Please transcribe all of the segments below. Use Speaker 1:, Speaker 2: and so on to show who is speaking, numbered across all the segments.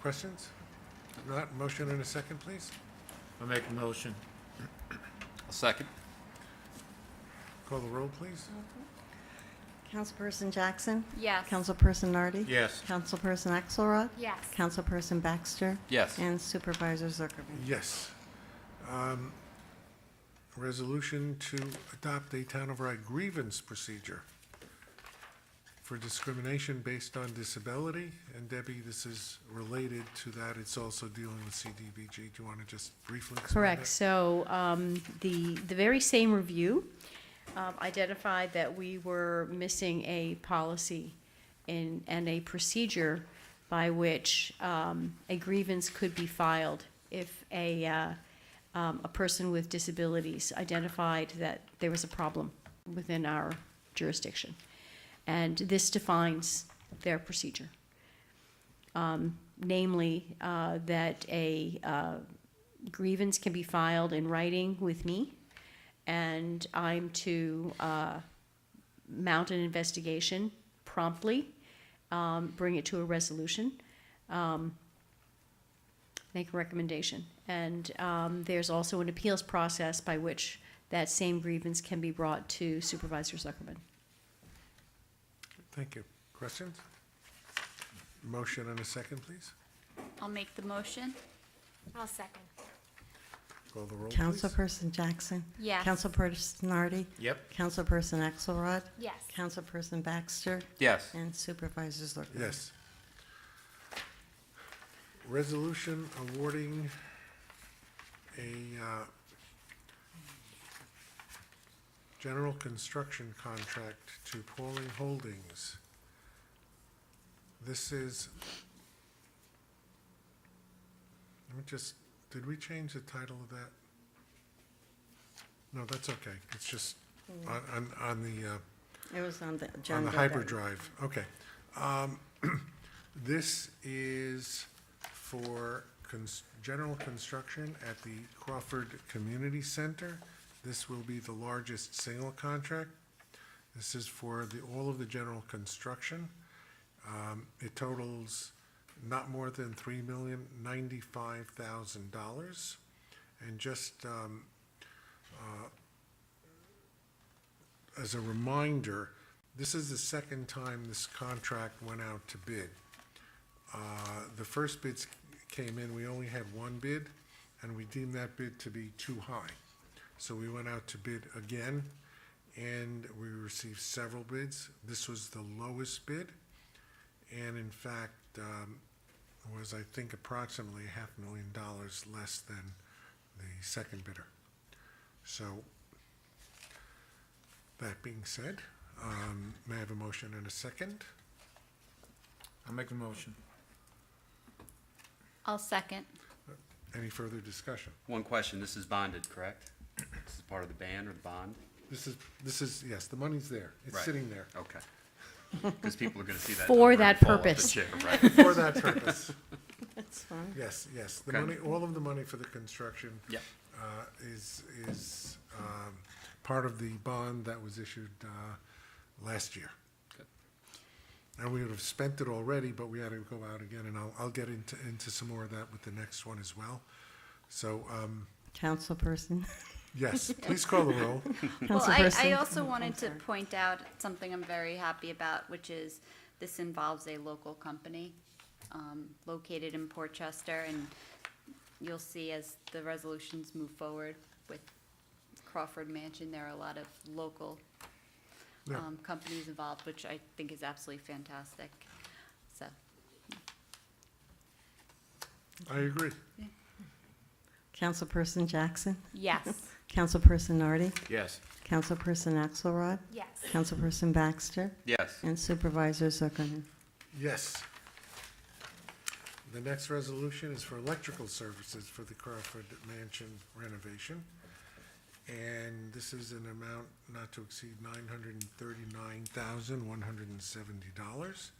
Speaker 1: Questions? If Not, motion in a second, please.
Speaker 2: I'll make a motion.
Speaker 3: I'll second.
Speaker 1: Call the roll, please.
Speaker 4: Councilperson Jackson?
Speaker 5: Yes.
Speaker 4: Councilperson Nardi?
Speaker 2: Yes.
Speaker 4: Councilperson Axelrod?
Speaker 5: Yes.
Speaker 4: Councilperson Baxter?
Speaker 3: Yes.
Speaker 4: And Supervisor Zuckerman?
Speaker 1: Yes. Um, Resolution to adopt a town of Rye grievance procedure for discrimination based on disability. And Debbie, this is related to that. It's also dealing with CDBG. Do you want to just briefly explain that?
Speaker 6: Correct, so um, the, the very same review um, identified that we were missing a policy and, and a procedure by which um, a grievance could be filed if a, uh, um, a person with disabilities identified that there was a problem within our jurisdiction. And this defines their procedure. Um, Namely, uh, that a, uh, grievance can be filed in writing with me, and I'm to uh, mount an investigation promptly, um, bring it to a resolution, um, make a recommendation. And um, there's also an appeals process by which that same grievance can be brought to Supervisor Zuckerman.
Speaker 1: Thank you. Questions? Motion in a second, please.
Speaker 5: I'll make the motion. I'll second.
Speaker 1: Call the roll, please.
Speaker 4: Councilperson Jackson?
Speaker 5: Yes.
Speaker 4: Councilperson Nardi?
Speaker 2: Yep.
Speaker 4: Councilperson Axelrod?
Speaker 5: Yes.
Speaker 4: Councilperson Baxter?
Speaker 3: Yes.
Speaker 4: And Supervisor Zuckerman?
Speaker 1: Yes. Resolution awarding a uh, general construction contract to Pauling Holdings. This is, let me just, did we change the title of that? No, that's okay. It's just on, on, on the, uh,
Speaker 4: It was on the agenda.
Speaker 1: on the
Speaker 4: that-
Speaker 1: hyperdrive, okay. Um, This is for cons- general construction at the Crawford Community Center. This will be the largest single contract. This is for the, all of the general construction. Um, It totals not more than three million ninety-five thousand dollars. And just, um, as a reminder, this is the second time this contract went out to bid. Uh, The first bids came in, we only had one bid, and we deemed that bid to be too high. So we went out to bid again, and we received several bids. This was the lowest bid, and in fact, um, was, I think, approximately a half million dollars less than the second bidder. So that being said, um, may I have a motion and a second?
Speaker 2: I'll make a motion.
Speaker 5: I'll second.
Speaker 1: Any further discussion?
Speaker 3: One question, this is bonded, correct? This is part of the ban or the bond?
Speaker 1: This is, this is, yes, the money's there. It's
Speaker 3: Right.
Speaker 1: sitting there
Speaker 3: Okay. Because people are going to see that.
Speaker 6: For
Speaker 3: number and
Speaker 6: that
Speaker 3: fall off the
Speaker 6: purpose.
Speaker 3: chair, right?
Speaker 1: for that purpose.
Speaker 4: That's fine.
Speaker 1: Yes, yes. The money,
Speaker 3: Okay.
Speaker 1: all of the money for the construction
Speaker 3: Yep.
Speaker 1: uh, is, is um, part of the bond that was issued uh, last year.
Speaker 3: Good.
Speaker 1: And we would have spent it already, but we had to go out again, and I'll, I'll get into, into some more of that with the next one as well. So, um,
Speaker 4: Councilperson,
Speaker 1: yes, please call the roll.
Speaker 5: Well, I, I
Speaker 4: Councilperson-
Speaker 5: also wanted to
Speaker 4: sorry.
Speaker 5: point out something I'm very happy about, which is this involves a local company um, located in Port Chester, and you'll see as the resolutions move forward with Crawford Mansion, there are a lot of local
Speaker 1: Yeah.
Speaker 5: um, companies involved, which I think is absolutely fantastic. So,
Speaker 1: I agree.
Speaker 4: Councilperson Jackson?
Speaker 5: yes.
Speaker 4: Councilperson Nardi?
Speaker 2: Yes.
Speaker 4: Councilperson Axelrod?
Speaker 5: Yes.
Speaker 4: Councilperson Baxter?
Speaker 3: Yes.
Speaker 4: And Supervisor Zuckerman?
Speaker 1: Yes. The next resolution is for electrical services for the Crawford Mansion renovation. And this is an amount not to exceed nine hundred and thirty-nine thousand, one hundred and seventy dollars.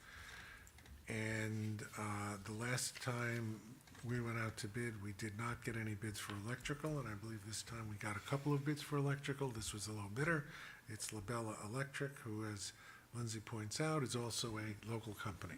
Speaker 1: And, uh, the last time we went out to bid, we did not get any bids for electrical, and I believe this time we got a couple of bids for electrical. This was a low bidder. It's Labella Electric, who, as Lindsay points out, is also a local company.